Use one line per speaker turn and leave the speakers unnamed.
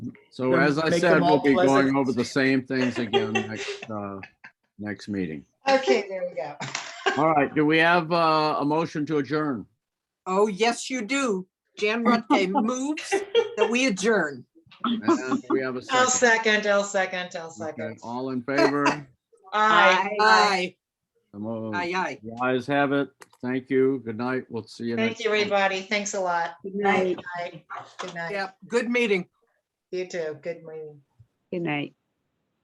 So
Then
as I
make
said,
them all
we'll be going
pleasant.
over the same things again next, uh, next meeting.
Okay, there we go.
All right, do we have uh, a motion to adjourn?
Oh, yes, you do. Jan Rutte moves that we adjourn.
And we have a
I'll
second.
second, I'll second, I'll
Okay,
second.
All in favor?
Aye.
Aye,
The mo-
aye, aye.
The ayes have it. Thank you. Good night. We'll see you
Thank
next.
you, everybody. Thanks a lot.
Good
Bye. Good night.
Yep, good meeting.
You too. Good morning.
Good night.